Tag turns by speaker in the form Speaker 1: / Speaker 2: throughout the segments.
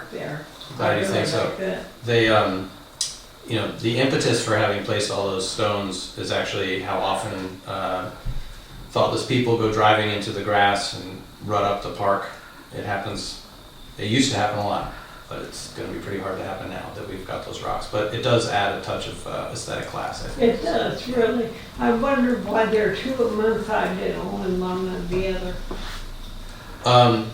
Speaker 1: or
Speaker 2: I
Speaker 1: or
Speaker 2: do think so.
Speaker 1: like that.
Speaker 2: They, um, you know, the impetus for having placed all those stones is actually how often uh, thoughtless people go driving into the grass and rut up the park. It happens. It used to happen a lot, but it's going to be pretty hard to happen now that we've got those rocks. But it does add a touch of uh, aesthetic class, I think.
Speaker 1: It does, really. I wonder why there are two of them inside it, one long and the other.
Speaker 2: Um,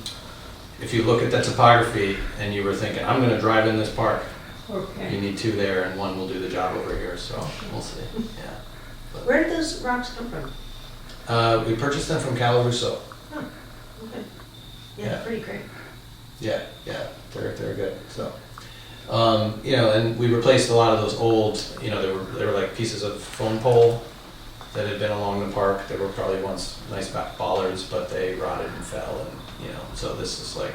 Speaker 2: if you look at the topography and you were thinking, I'm going to drive in this park, you
Speaker 1: Okay.
Speaker 2: need two there and one will do the job over here. So we'll see. Yeah.
Speaker 3: Where did those rocks come from?
Speaker 2: Uh, we purchased them from Calaruso.
Speaker 3: Okay.
Speaker 2: Yeah.
Speaker 3: Yeah, pretty great.
Speaker 2: Yeah, yeah, they're they're good. So, um, you know, and we replaced a lot of those old. You know, they were they were like pieces of phone pole that had been along the park. They were probably once nice back bollards, but they rotted and fell, and you know, so this is like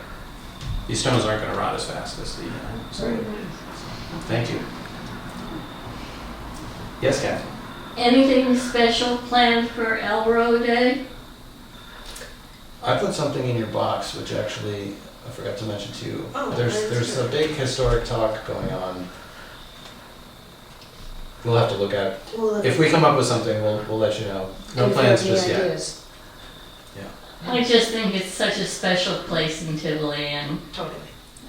Speaker 2: these stones aren't going to rot as fast as the. You know,
Speaker 1: Very
Speaker 2: so,
Speaker 1: nice.
Speaker 2: thank you. Yes, Kathy.
Speaker 4: Anything special planned for Elro Day?
Speaker 2: I put something in your box, which actually I forgot to mention to you.
Speaker 3: Oh,
Speaker 2: there's
Speaker 3: that's
Speaker 2: there's a
Speaker 3: good.
Speaker 2: big historic talk going on. We'll have to look at it.
Speaker 3: Well,
Speaker 2: If we come up with something, we'll, we'll let you know. No
Speaker 5: And if
Speaker 2: plans
Speaker 5: you have any
Speaker 2: just yet.
Speaker 5: ideas.
Speaker 4: I just think it's such a special place in Tivoli and
Speaker 3: Totally.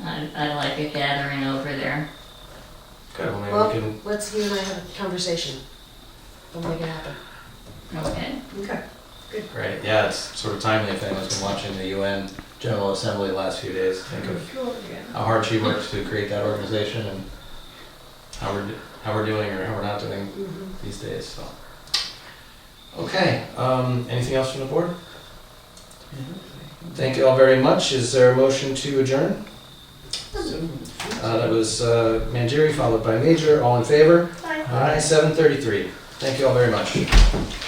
Speaker 4: I, I like a gathering over there.
Speaker 2: Okay, well, maybe
Speaker 5: Well-
Speaker 2: we can,
Speaker 5: Let's, you and I have a conversation. We'll make it happen.
Speaker 4: Okay.
Speaker 3: Okay.
Speaker 2: right, yeah, it's sort of timely if anyone's been watching the UN General Assembly the last few days. Think of
Speaker 1: Sure, yeah.
Speaker 2: how hard she worked to create that organization and how we're, do- how we're doing or how we're not doing these days, so. Okay, um, anything else from the board? Thank you all very much. Is there a motion to adjourn? Uh, that was, uh, Manjeri followed by Major. All in favor?
Speaker 3: Bye.
Speaker 2: Aye, seven thirty-three. Thank you all very much.